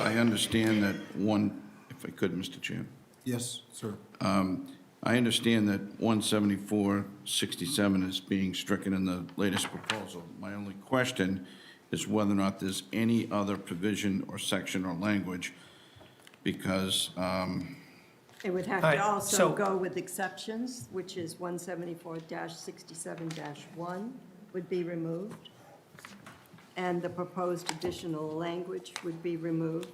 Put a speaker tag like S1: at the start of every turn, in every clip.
S1: I understand that one, if I could, Mr. Chair,
S2: Yes, sir.
S1: I understand that 17467 is being stricken in the latest proposal. My only question is whether or not there's any other provision or section or language, because um,
S3: It would have
S4: All
S3: to
S4: right,
S3: also
S4: so-
S3: go with exceptions, which is 174-67-1 would be removed, and the proposed additional language would be removed.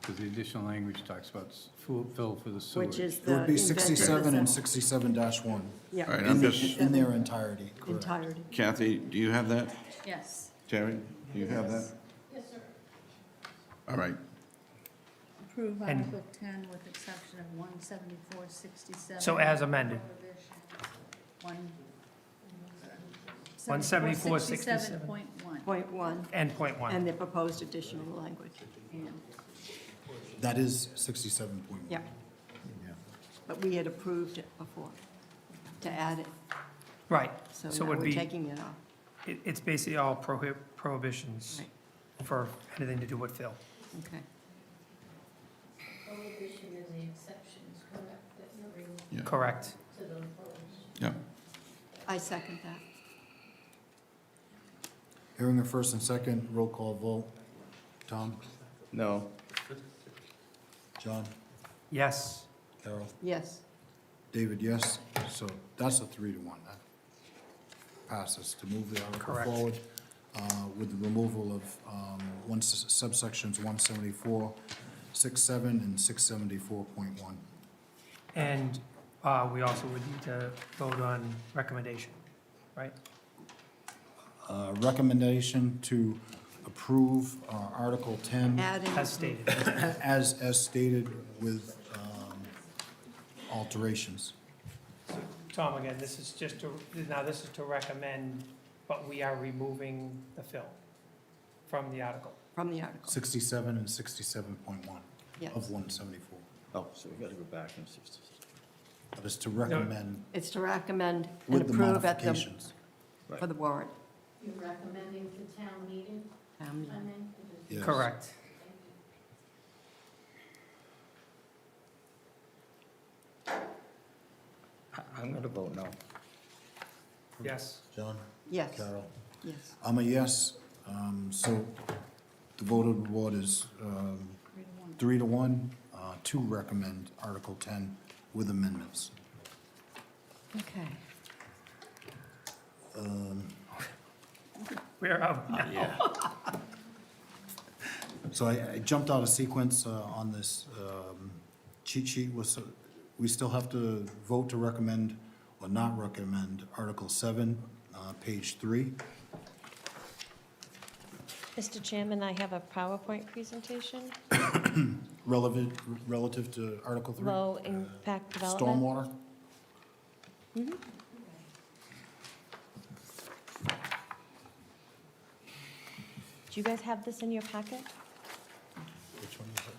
S5: Because the additional language talks about s- fu- fill for the sewage.
S3: Which is
S2: It would
S3: the
S2: be
S3: invented
S2: 67 and
S3: assess-
S2: 67-1
S1: All right,
S3: Yeah,
S1: I'm
S2: in the-
S1: just-
S2: in their entirety, correct.
S3: entirety.
S1: Kathy, do you have that?
S6: Yes.
S1: Terry, do you have that? Yes, sir. All right,
S6: Approve
S4: And-
S6: Article 10 with exception of 17467.
S4: So as amended.
S6: One.
S4: 174.67.
S6: 174.67.1.
S3: Point one,
S4: and point one.
S3: and the proposed additional language.
S6: And-
S2: That is 67.1.
S3: Yeah. But we had approved it before to add it,
S4: Right,
S3: so
S4: so it
S3: now
S4: would
S3: we're
S4: be,
S3: taking it off.
S4: it- it's basically all prohib- prohibitions
S3: Right.
S4: for anything to do with fill.
S3: Okay.
S7: Prohibition and the exceptions, correct, that you're reading
S1: Yeah.
S4: Correct.
S7: to the prohibition.
S1: yeah.
S3: I second that.
S2: Hearing a first and second, roll call vote. Tom?
S1: No.
S2: John?
S4: Yes,
S2: Carol?
S3: Yes.
S2: David, yes. So that's a three to one. That passes to move the article
S4: Correct.
S2: forward uh, with the removal of um, one s- subsections 174, 67, and 674.1.
S4: and uh, we also would need to vote on recommendation, right?
S2: Uh, Recommendation to approve uh, Article
S4: Mm.
S2: 10
S3: Adding.
S4: As stated.
S2: Mm-hmm. as, as stated with um, alterations.
S4: Tom, again, this is just to, now this is to recommend, but we are removing the fill from the article.
S3: From the article,
S2: 67 and 67.1
S3: yes.
S2: of 174.
S8: Oh, so we gotta go back and just.
S2: That is to recommend
S3: It's to recommend and
S2: with the
S3: approve at the,
S2: modifications.
S3: for the warrant.
S7: You're recommending to town meeting,
S3: Um,
S7: I mean?
S2: Yes.
S4: Correct.
S8: I'm gonna vote no.
S4: Yes.
S2: John?
S3: Yes,
S2: Carol?
S3: yes.
S2: I'm a yes. Um, So the vote of the board is um,
S6: three to one.
S2: three to one uh, to recommend Article 10 with amendments.
S3: Okay.
S4: Where are oh, we now?
S2: So I I jumped out of sequence uh, on this um, cheat sheet. Was, we still have to vote to recommend or not recommend Article 7, uh, page 3.
S9: Mr. Chairman, I have a PowerPoint presentation,
S2: relevant, relative to Article 3?
S9: low impact development.
S2: Stormwater?
S9: Do you guys have this in your packet?
S2: Which one is it?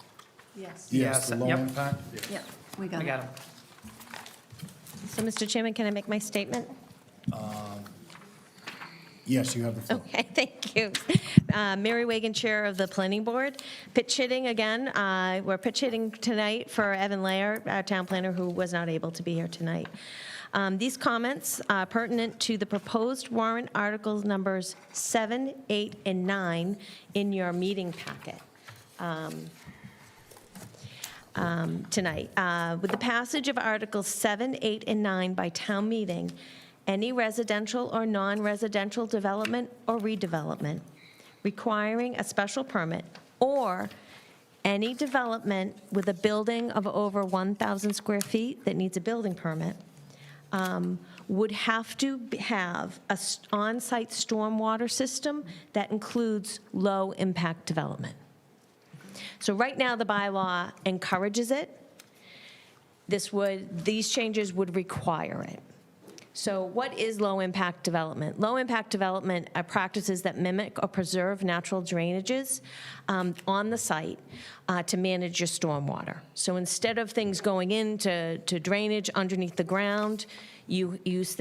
S6: Yes.
S2: Yes,
S4: Yes,
S2: the low
S4: yep.
S2: impact?
S3: Yeah, we got
S4: We got
S3: it.
S4: him.
S9: So, Mr. Chairman, can I make my statement?
S2: Yes, you have the floor.
S9: Okay, thank you. Uh, Mary Wagon, Chair of the Planning Board. Pitch hitting again, uh, we're pitch hitting tonight for Evan Layer, our town planner, who was not able to be here tonight. Um, These comments are pertinent to the proposed warrant articles numbers 7, 8, and 9 in your meeting packet. um, tonight. Uh, With the passage of Articles 7, 8, and 9 by town meeting, any residential or non-residential development or redevelopment requiring a special permit, or any development with a building of over 1,000 square feet that needs a building permit, um, would have to b- have a s- on-site stormwater system that includes low-impact development. So right now, the bylaw encourages it. This would, these changes would require it. So what is low-impact development? Low-impact development are practices that mimic or preserve natural drainages um, on the site uh, to manage your stormwater. So instead of things going into to drainage underneath the ground, you use